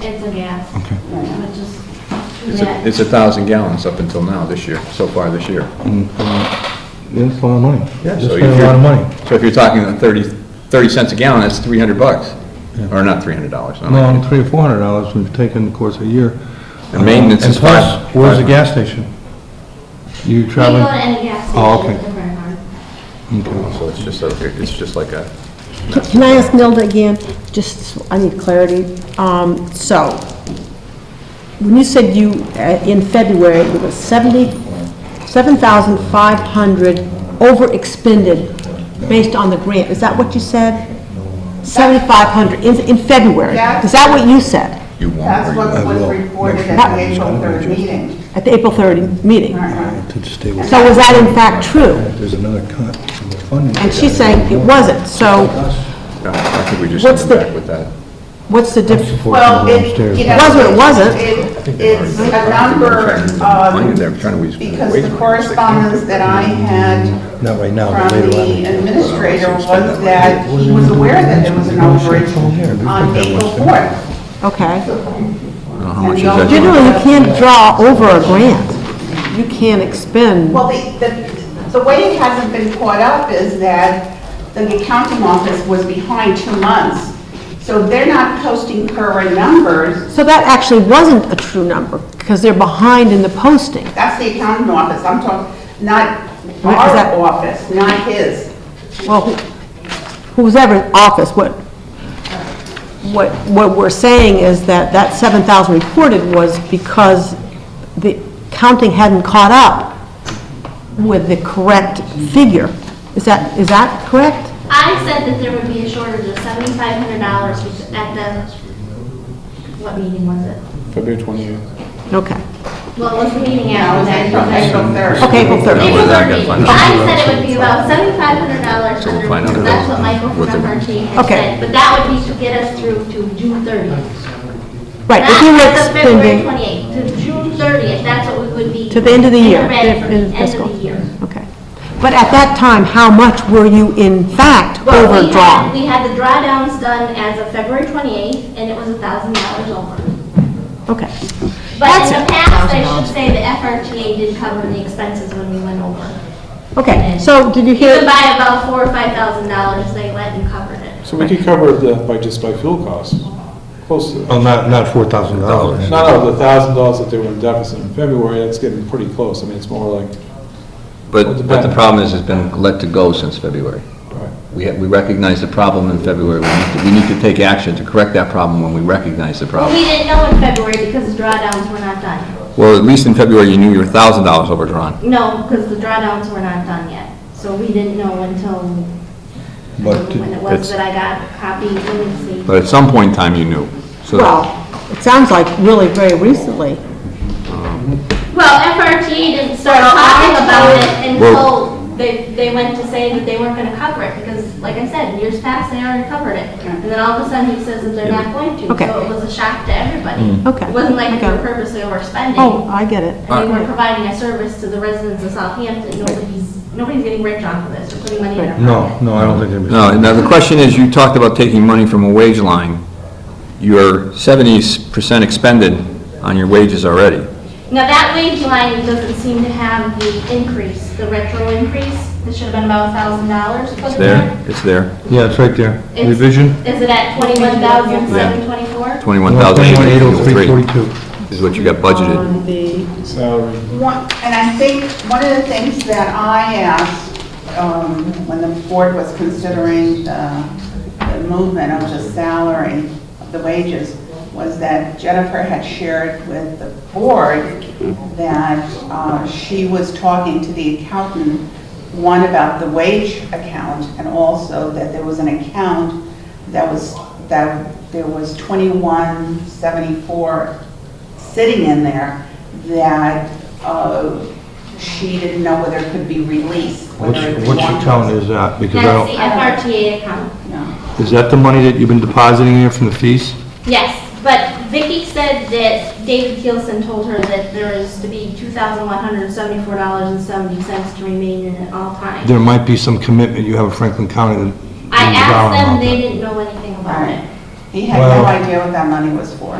It's a gas. Okay. Which is too It's bad. a- It's a thousand gallons up until now this year, so far this year. That's uh, a lot of money. Yeah, That's so a if lot you're- of money. So if you're talking the 30 30 cents a gallon, that's 300 bucks, or not 300 dollars. Well, three or four hundred dollars we've taken in the course of a year. And maintenance And is plus, five- Where's the five- gas station? You We go traveling? to any gas Oh, station okay. at the burn barn. So it's just, a- it's just like a, Can I ask Nilda again, just, I need clarity. Um, So, when you said you, uh, in February, it was 70, 7,500 over expended based on the grant, is that what you said? 7,500 in in February? That's- Is that what you said you won't. That's or you what won't. was will. reported That- at the April 3rd meeting. at the April 30 meeting? To stay with, So was that in fact true? there's another cut in the funding. And she's saying it wasn't, so No, I think we just What's send them the- back with that. what's the difference? Well, it, Upstairs. you know. Wasn't it wasn't? it- It's a number Money there, of, trying to waste- because waste the money. correspondence that I had Not right now, but from later the on. administrator was that he was aware that there was an overage on April 4th. Okay. I don't know How much is And the that? only- Generally, you can't draw over a grant. You can't expend. Well, the, the, the way it hasn't been caught up is that the accounting office was behind two months. So they're not posting current numbers. So that actually wasn't a true number, because they're behind in the posting. That's the accounting office. I'm talking, not What is that? our office, not his. Well, who- who's ever in office, what, what, what we're saying is that that 7,000 reported was because the counting hadn't caught up with the correct figure. Is that, is that correct? I said that there would be a shortage of seventy-five hundred dollars at the, what meeting was it? February 28th. Okay. Well, it was the meeting Now, after that. it's April April 3rd. Okay, April 30. April Well, then I third gotta meeting. find out. I said it would be about seventy-five hundred dollars So we'll under, find out because that's what about Michael from what the- MRT had Okay. said. But that would be to get us through to June thirtieth. Right, if you were expending... Not to February twenty-eighth, to June thirtieth, that's what we would be. To the end of the year, Intermittent, the end of the End fiscal. of the year. Okay. But at that time, how much were you in fact Well, we had- overdrawn? We had the drawdowns done as of February 28th, and it was $1,000 over. Okay. But in the past, I should say, the FRTA did cover the expenses when we went over. Okay, so did you Even hear, by about $4,000 or $5,000, they let and covered it. So we could cover the, by, just by fuel costs, close to, Oh, Well, not, not four thousand dollars. not out of the thousand dollars that they were in deficit in February, that's getting pretty close, I mean, it's more like, But, but the problem is, it's been let to go since February. Right. We, ha- we recognize the problem in February, we need, to- we need to take action to correct that problem when we recognize the But problem. we didn't know in February because the drawdowns were not done. Well, at least in February, you knew you were thousand dollars overdrawn. No, because the drawdowns were not done yet. So we didn't know until, I don't But know when it was it's- that I got copies, let me see. But at some point in time, you knew. So well, it sounds like really very recently. Well, FRTA didn't start Well, talking I- about it Well- until they, they went to say that they weren't gonna cover it, because, like I said, years past, they already covered it. And then all of a sudden, he says that they're not going to, Okay. so it was a shock to everybody. Okay. It wasn't like they Okay. were purposely Oh, overspending, I get it. and they were providing a service to the residents of Southampton, nobody's, nobody's getting rich off of this, or putting money in their pocket. No, no, I don't think it'd be. No, now the question is, you talked about taking money from a wage line. You're seventy percent expended on your wages already. Now, that wage line doesn't seem to have the increase, the retro increase, it should have been about a thousand dollars put It's in there. there, it's there, Yeah, it's right there. It's- Revision? Is it at twenty-one thousand, seven twenty-four? twenty-one thousand eight hundred three 121,803.42. is what you got budgeted. On the- salary. One- And I think one of the things that I asked um, when the board was considering the the movement of the salary, of the wages, was that Jennifer had shared with the board that uh, she was talking to the accountant, one, about the wage account, and also that there was an account that was, that there was 2174 sitting in there that uh, she didn't know whether it could be released. Which, whether it which belonged- account is that? Because I don't, That's the FRTA account. No. is that the money that you've been depositing here from the fees? Yes, but Vicki said that David Keelson told her that there is to be two thousand one hundred seventy-four dollars and seventy cents to remain in at all times. There might be some commitment you have with Franklin County that. I that you borrow asked them, amount they that- didn't know anything about it. He had no Well- idea what that money was for.